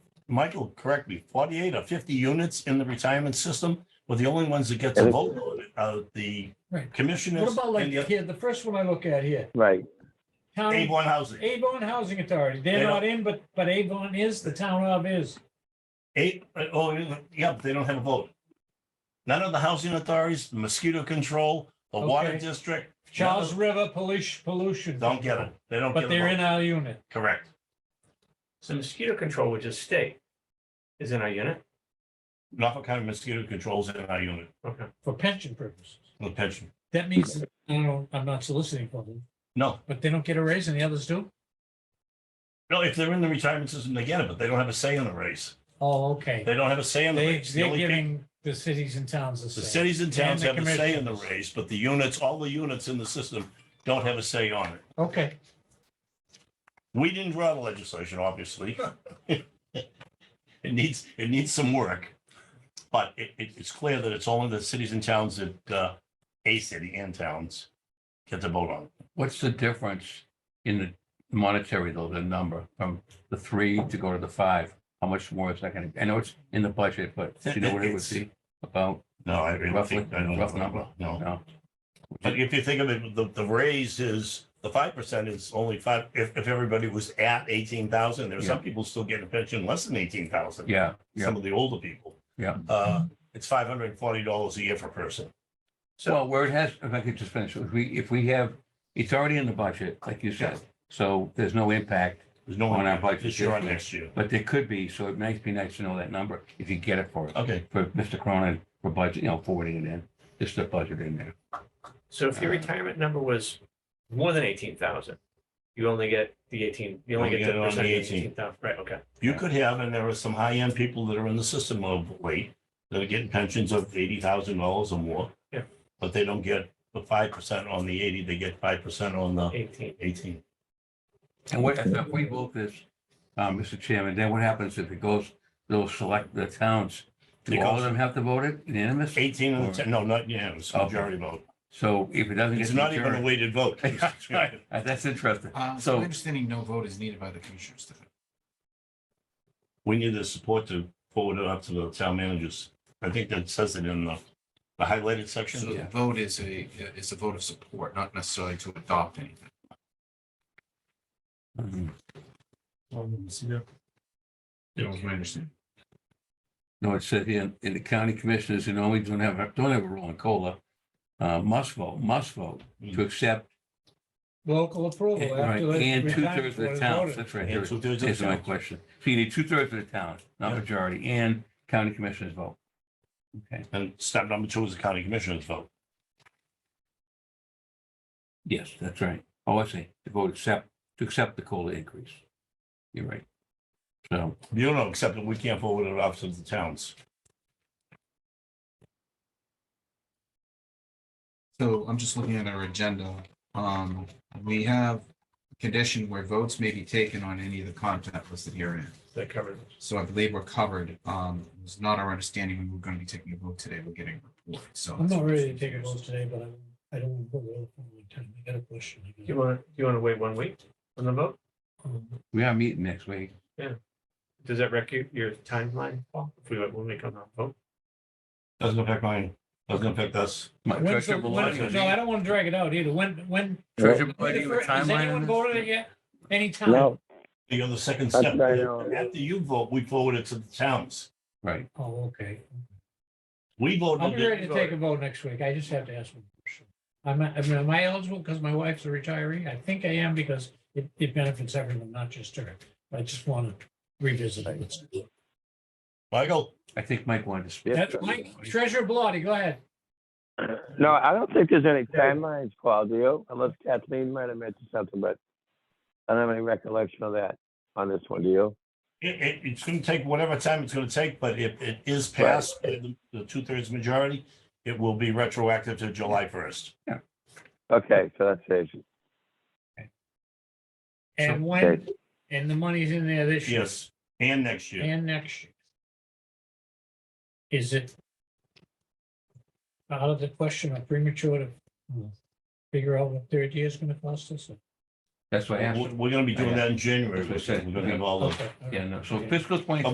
Michael, correct me, forty-eight or fifty units in the retirement system, were the only ones that get to And it- vote on it, uh, the Right. What commissioners about like and the here, the first one I look at here, Right, town, Avon Housing. Avon Housing Authority, They they're don't- not in, but, but Avon is, the town of is. Eight, uh, oh, yeah, but they don't have a vote. None of the housing authorities, the mosquito control, the water Okay. district. none Charles of- River Pollution, Pollution. Don't get it. They don't get But a they're in vote. our unit. Correct. So mosquito control, which is state, is in our unit? Norfolk County Mosquito Control's in our unit, Okay. for pension purposes. the pension. That means, that- I don't know, I'm not soliciting for them, No, but they don't get a raise and the others do? no, if they're in the retirement system, they get it, but they don't have a say in the race. Oh, okay. They don't have a say in the They, race. The they're only people- giving the cities and towns the The same. cities and towns And have the a say in the commissions. race, but the units, all the units in the system don't have a say on it. Okay, We didn't draw the legislation, obviously. It needs, it needs some work. But it, it, it's clear that it's only the cities and towns that, uh, a city and towns get to vote on. What's the difference in the monetary, though, the number from the three to go to the five? How much more is that going to, I know it's in the budget, but do you know what it would be about? No, I really Roughly, think, I don't rough number. know, no. No. But if you think of it, the, the raise is, the five percent is only five, if, if everybody was at eighteen thousand, there are some people still getting a pension less than eighteen thousand. Yeah, yeah. some of the older people. Yeah. Uh, it's five hundred and forty dollars a year per person. Well, where it has, if I could just finish, if we, if we have, it's already in the budget, like you said. So there's no impact, There's no On our one budget this year or this year. next year. but there could be, so it might be nice to know that number if you get it for, us. Okay, for Mr. Cronin, for budget, you know, forwarding it in, just the budget in there. So if your Uh, retirement number was more than eighteen thousand, you only get the eighteen, you only Only get get it the on the percent of 18. eighteen thousand, right, okay. you could have, and there are some high-end people that are in the system of late that are getting pensions of eighty thousand dollars or more. Yeah. But they don't get the five percent on the eighty, they get five percent on the Eighteen. eighteen. And what, if we vote this, uh, Mr. Chairman, then what happens if it goes, they'll select the towns? Do all of them have to vote it unanimous? Eighteen and ten, no, not unanimous, Okay. majority vote. So if it doesn't get. It's not even a majority- weighted vote. That's right. That's interesting. Uh, so So- my understanding, no vote is needed by the commissioners. to- We need the support to forward it up to the town managers. I think that says it in the the highlighted So section. the vote is a, is a vote of support, not necessarily to adopt anything. Mm-hmm. Mhm. That was my understanding. No, it said here, in the county commissioners, and only don't have, don't have a rule in COLA, uh, must vote, must vote Mm. to accept. eh, local approval Right, Oh, after. the And two retirement thirds of board the is towns, voted. that's right. And here. two-thirds of the Here's my towns. question. So you need two thirds of the towns, not Yeah. majority, and county commissioners vote. Okay, And step number two is the county commissioners vote. yes, that's right. Oh, I see, to vote accept, to accept the COLA increase. You're right. So, You don't accept it, we can't forward it off to the towns. So I'm just looking at our agenda. Um, we have a condition where votes may be taken on any of the content listed herein. That covers. it. So I believe we're covered. Um, it's not our understanding we were going to be taking a vote today. We're getting a report, so. I'm not ready to take a vote today, but I'm, I don't want to put it off on my time. I got a question. Do you want, do you want to wait one week on the vote? Um, we are meeting next week. Does that wreck your, your timeline, Paul, if we, wait when we come out vote? Doesn't affect mine, doesn't affect us. My When's the- Treasurer when- Bellotti- No, I don't want to drag it out either. When, when? Treasurer when Bellotti, the you have a fir- Has timeline on anyone this? voted it yet? Anytime? no, You're the second That's step. right, I know. After you vote, we forward it to the towns. Right, Oh, okay. We I'll voted be it. ready to take a vote next week. I just have to ask one question. I'm, I mean, am I eligible because my wife's a retiree? I think I am because it, it benefits everyone, not just her. I just want to revisit it. Michael, I think Mike wanted to speak. Yeah. That's Mike, Treasurer Bellotti, go ahead. no, I don't think there's any timelines, Claudio, unless Kathleen might have mentioned something, but I don't have any recollection of that on this one, do you? it, it, it's gonna take whatever time it's gonna take, but if it is passed by the, the two-thirds majority, it will be retroactive to July first. Okay, so that saves it. And when, Okay. and the money's in there this year Yes, and next year. and next year. Is it out of the question or premature to hmm, figure out what third year is going to cost us? That's why I asked. We're, we're gonna be doing that in January, That's what I we're said. gonna have all the. Okay, all right. Yeah, no, so fiscal twenty